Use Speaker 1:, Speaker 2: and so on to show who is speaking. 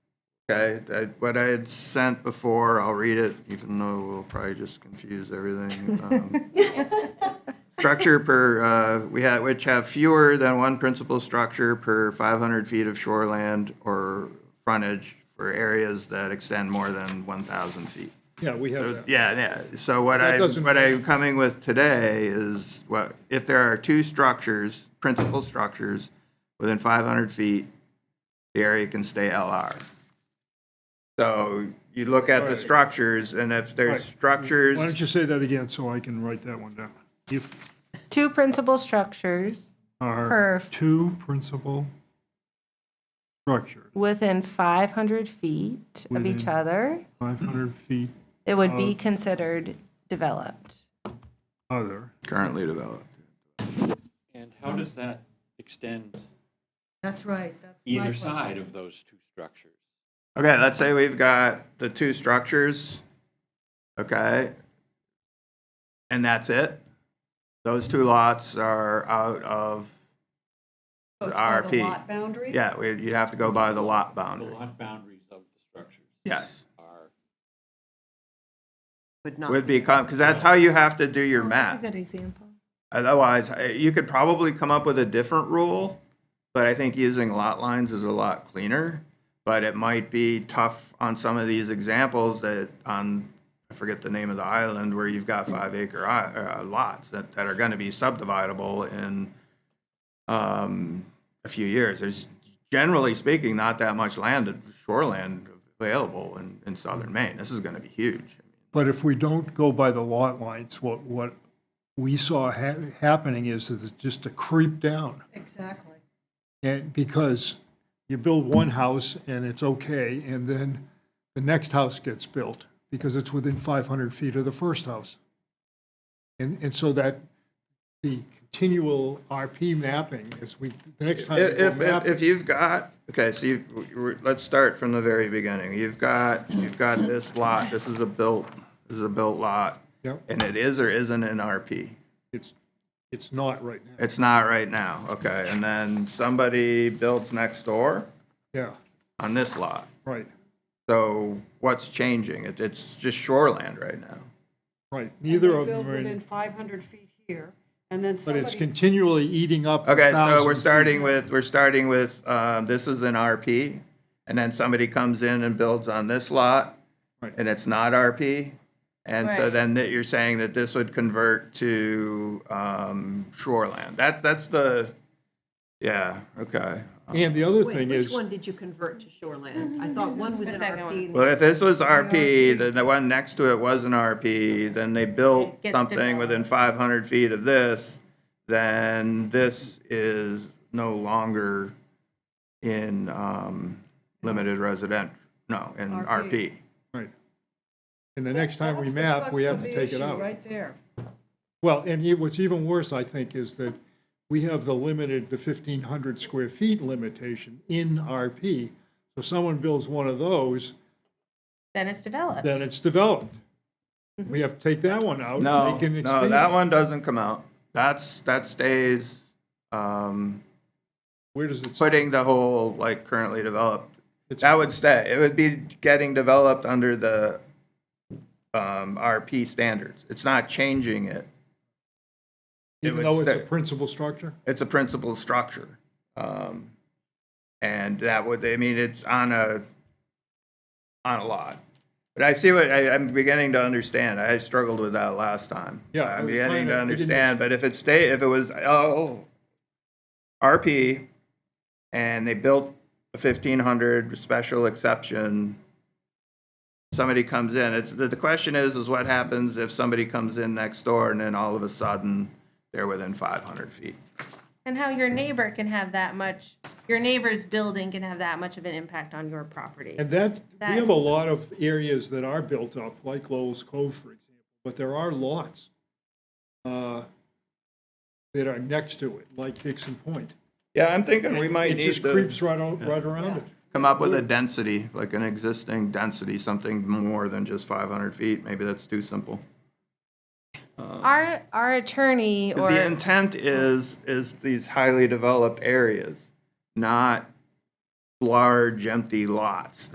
Speaker 1: Okay, I- what I had sent before, I'll read it, even though we'll probably just confuse everything. Um, Structure per, uh, we had, which have fewer than one principal structure per 500 feet of shoreland or frontage for areas that extend more than 1,000 feet.
Speaker 2: Yeah, we have that.
Speaker 1: Yeah, yeah. So what I,
Speaker 2: doesn't-
Speaker 1: what I'm coming with today is what, if there are two structures, principal structures, within five hundred feet, the area can stay LR. So you look at the structures and if there's
Speaker 2: Right.
Speaker 1: structures,
Speaker 2: Why don't you say that again so I can write that one down? If
Speaker 3: Two principal structures
Speaker 2: are
Speaker 3: Perf.
Speaker 2: two principal structures,
Speaker 3: within 500 feet of each
Speaker 2: Within-
Speaker 3: other,
Speaker 2: 500 feet
Speaker 3: it would be considered developed.
Speaker 2: other,
Speaker 1: currently developed.
Speaker 4: And how does that extend
Speaker 5: That's right, that's my
Speaker 4: either
Speaker 5: question.
Speaker 4: side of those two structures?
Speaker 1: Okay, let's say we've got the two structures, okay? And that's it. Those two lots are out of,
Speaker 5: So it's called a
Speaker 1: RP.
Speaker 5: lot boundary?
Speaker 1: yeah, we- you'd have to go by the lot
Speaker 4: The
Speaker 1: boundary.
Speaker 4: lot boundaries of the structures
Speaker 1: Yes.
Speaker 4: are,
Speaker 5: Would not.
Speaker 1: would be because that's how you have to do your
Speaker 6: Oh, That's
Speaker 1: math.
Speaker 6: a good example.
Speaker 1: Otherwise, I- you could probably come up with a different rule, but I think using lot lines is a lot cleaner. But it might be tough on some of these examples that on, I forget the name of the island where you've got five acre i- uh, lots that, that are going to be subdividable in um, a few years. There's generally speaking, not that much land, shoreland available in, in southern Maine. This is going to be huge.
Speaker 2: But if we don't go by the lot lines, what, what we saw ha- happening is that it's just a creep down.
Speaker 5: Exactly.
Speaker 2: And because you build one house and it's okay, and then the next house gets built because it's within 500 feet of the first house. And, and so that, the continual RP mapping is we, the next time. we go
Speaker 1: If, if,
Speaker 2: mapping-
Speaker 1: if you've got, okay, so you, we're- let's start from the very beginning. You've got, you've got this lot, this is a built, this is a built lot.
Speaker 2: Yep.
Speaker 1: And it is or isn't an RP?
Speaker 2: It's, it's not right now,
Speaker 1: It's not right now, okay, and then somebody builds next door
Speaker 2: yeah,
Speaker 1: on this lot.
Speaker 2: right,
Speaker 1: So what's changing? It, it's just shoreland right now.
Speaker 2: right, neither
Speaker 5: They
Speaker 2: of
Speaker 5: build
Speaker 2: them are in.
Speaker 5: Within 500 feet here, and then
Speaker 2: But it's
Speaker 5: somebody,
Speaker 2: continually eating up. the
Speaker 1: Okay, so
Speaker 2: 1,000
Speaker 1: we're
Speaker 2: feet.
Speaker 1: starting with, we're starting with, um, this is an RP, and then somebody comes in and builds on this lot,
Speaker 2: Right.
Speaker 1: and it's not RP. And so
Speaker 3: Right.
Speaker 1: then that you're saying that this would convert to, um, shoreland. That, that's the, yeah, okay.
Speaker 2: And the other
Speaker 7: Wait,
Speaker 2: thing
Speaker 7: which
Speaker 2: is,
Speaker 7: one did you convert to shoreland? I thought one was an RP. and
Speaker 1: Well, if this was RP, then the one next to it was an RP, then they built
Speaker 3: It gets
Speaker 1: something
Speaker 3: developed.
Speaker 1: within five hundred feet of this, then this is no longer in, um, limited resident, no, in RP.
Speaker 2: right. And the next time we
Speaker 5: That's the
Speaker 2: map, we
Speaker 5: crux
Speaker 2: have to
Speaker 5: of the
Speaker 2: take it
Speaker 5: issue
Speaker 2: out.
Speaker 5: Right there.
Speaker 2: Well, and e- what's even worse, I think, is that we have the limited, the fifteen hundred square feet limitation in RP. So someone builds one of those,
Speaker 3: Then it's developed.
Speaker 2: then it's developed. We have to take that one out.
Speaker 1: No,
Speaker 2: make an
Speaker 1: no,
Speaker 2: expand.
Speaker 1: that one doesn't come out. That's, that stays, um,
Speaker 2: Where does it,
Speaker 1: putting the whole, like, currently developed.
Speaker 2: It's-
Speaker 1: That would stay. It would be getting developed under the um, RP standards. It's not changing it. it
Speaker 2: even
Speaker 1: would
Speaker 2: though it's a
Speaker 1: stay.
Speaker 2: principal structure?
Speaker 1: It's a principal structure. Um, And that would, I mean, it's on a, on a lot. But I see what, I, I'm beginning to understand. I struggled with that last time.
Speaker 2: Yeah, I
Speaker 1: I'm
Speaker 2: was
Speaker 1: beginning to
Speaker 2: trying to- we didn't-
Speaker 1: understand, but if it stayed, if it was, oh, RP, and they built a fifteen hundred special exception. Somebody comes in, it's, the, the question is, is what happens if somebody comes in next door and then all of a sudden they're within five hundred feet?
Speaker 3: And how your neighbor can have that much, your neighbor's building can have that much of an impact on your property.
Speaker 2: And that, we
Speaker 3: That-
Speaker 2: have a lot of areas that are built up, like Lowell's Cove, for example, but there are lots uh, that are next to it, like Dixon Point.
Speaker 1: Yeah, I'm thinking we might
Speaker 2: It
Speaker 1: need
Speaker 2: just
Speaker 1: to
Speaker 2: creeps right, o- right around it.
Speaker 1: come up with a density, like an existing density, something more than just five hundred feet. Maybe that's too simple.
Speaker 3: Our, our attorney
Speaker 1: 'Cause The
Speaker 3: or
Speaker 1: intent is, is these highly developed areas, not large empty lots